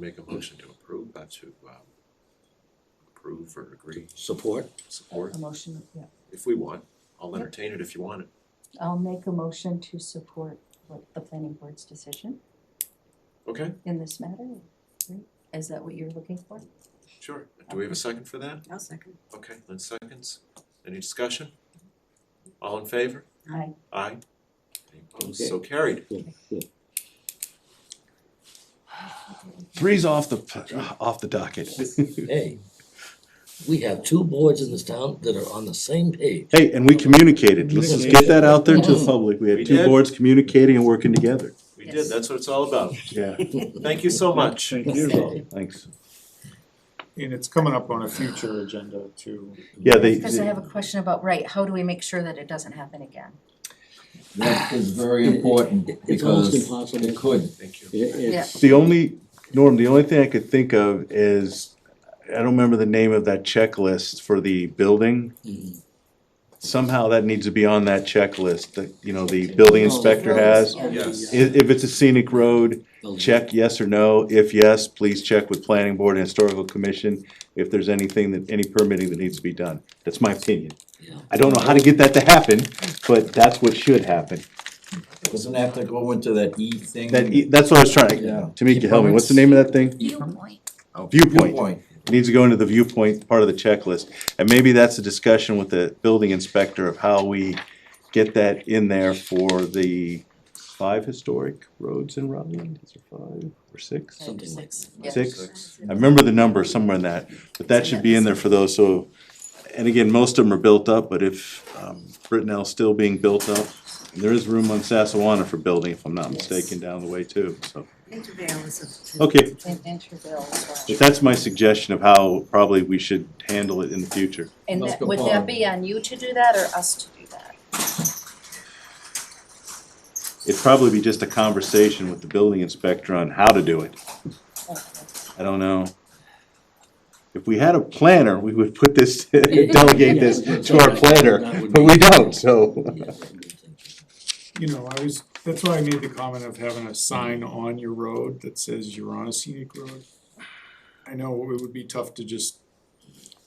Make a motion to approve, not to um, approve or agree, Support? support, A motion, yeah. if we want. I'll Yep. entertain it if you want it. I'll make a motion to support what the planning board's decision Okay, in this matter. right? Is that what you're looking for? sure. Do we have a second for that? I'll second. Okay, Lynn seconds. Any discussion? All in favor? Aye. Aye. Any opposed? Okay. So carried. Three's off the, off the docket. Hey, we have two boards in this town that are on the same page. Hey, and we communicated, let's just get that out there to the public, we We had two did. boards communicating and working together. We Yes. did, that's what it's all about. Yeah. Thank you so much. Thank you. Thanks. And it's coming up on a future agenda too. Yeah, they, Because I have a question about, right, how do we make sure that it doesn't happen again? That is very important It's almost because impossible. it could. Thank you. It- it's- the only, Norm, the only thing I could think of is, I don't remember the name of that checklist for the building. Mhm. Somehow that needs to be on that checklist that, you know, the building inspector has. Yeah. Yes. I- if it's a scenic road, Oh, check yes or no. If yes, please check with planning board and historical commission if there's anything that, any permitting that needs to be done. That's my opinion. Yeah. I don't know how to get that to happen, but that's what should happen. Doesn't have to go into that E thing. That, that's what I was trying, Yeah. E Tamika, help me, what's the name of that thing? Viewpoint. Oh, viewpoint. It Needs to go into the viewpoint part of the checklist. And maybe that's a discussion with the building inspector of how we get that in there for the five historic roads in Rutland, is it five or six? Something like Six, that. yeah. Six? I remember the number somewhere in that, but that should be in there for those, so, and again, most of them are built up, but if, um, Brittenell's still being built up, there is room on Sassawana for building, if I'm not mistaken, down the way too, so. Intervale is a. Okay, And Interville as but well. that's my suggestion of how probably we should handle it in the future. And Let's that- go would that forward. be on you to do that or us to do that? It'd probably be just a conversation with the building inspector on how to do it, I don't know. If we had a planner, we would put this, delegate this to our planner, but we don't, so. Yeah, that would be something. You know, I was, that's why I made the comment of having a sign on your road that says you're on a scenic road. I know it would be tough to just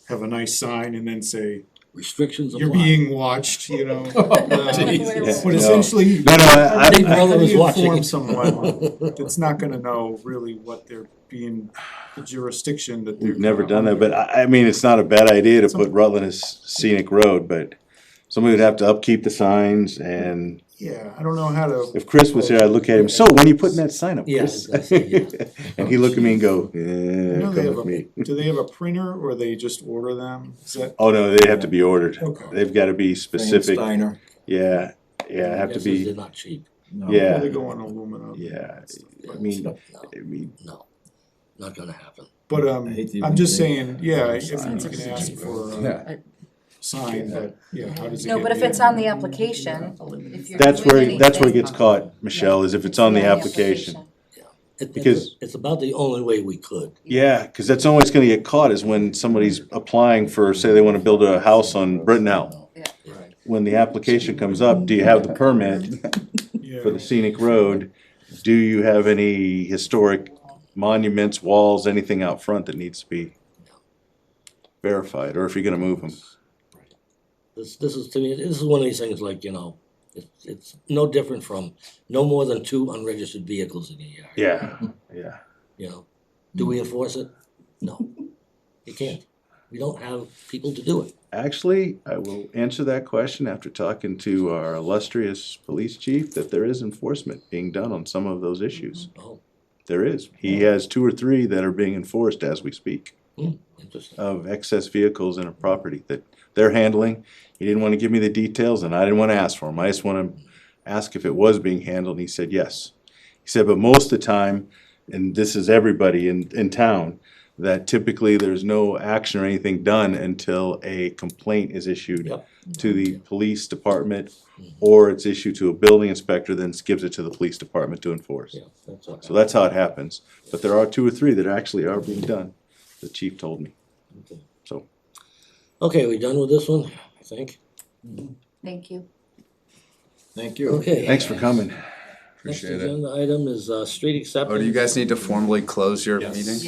have a nice sign and then say, Restrictions you're apply. being watched, you know? Uh, But No. essentially. No, no, I- how do Big you- how Brother do was you watching. Inform someone that's not gonna know really what they're being, the jurisdiction that they're. We've never done that, under. but I, I mean, it's not a bad idea to put Rutland as scenic road, but somebody would have to upkeep the signs and Yeah, I don't know how to. if Chris was here, I'd look at him, so when are you putting that sign up, Yeah, Chris? exactly, And he'd look at me and go, I eh, know they come have with a- me. Do they have a printer or they just order them? Is that, Oh, no, they have to be ordered. Okay. They've gotta be specific. Steiner, Yeah, yeah, have to Guesses They're be, not cheap. no. Yeah. they go on aluminum? yeah, I No, mean, I mean, No, not gonna happen. But I um, hate to I'm even just think. saying, yeah, if you Sign. can ask for a Yeah. sign, but yeah, how does it get? No, but if there? it's on the application, if you're. that's doing where, that's where it anything- gets caught, Michelle, is if it's on the application. It- it's- Because- It's about the only way we could. Yeah, cause that's always gonna get caught is when somebody's applying for, say they wanna build a house on Brittenell. Yeah. Right. When the application comes up, do you have the permit for the Yeah, scenic road? Do you have any historic monuments, walls, anything out front that needs to be verified, or if you're gonna move them? This, this is, to me, this is one of these things like, you know, it's, it's no different from no more than two unregistered vehicles in a yard. Yeah, yeah. You know, do we enforce it? No, you can't. We don't have people to do it. Actually, I will answer that question after talking to our illustrious police chief, that there is enforcement being done on some of those issues. Oh, There is. He has two or three that are being enforced as we speak interesting. of excess vehicles in a property that they're handling. He didn't want to give me the details and I didn't want to ask for them. I just want to ask if it was being handled and he said yes. He said, but most of the time, and this is everybody in, in town, that typically there's no action or anything done until a complaint is issued Yep. to the police department or it's issued to a building inspector, then gives it to the police department to enforce. Yeah, that's all. So that's how it happens, but there are two or three that actually are being done, the chief told me. Okay. So, Okay, we done with this one, I think? Thank you. Thank you. Okay. thanks for coming. Next Appreciate it. agenda item is, uh, street acceptance. uh, Oh, do you guys need to formally close your Yes. meeting?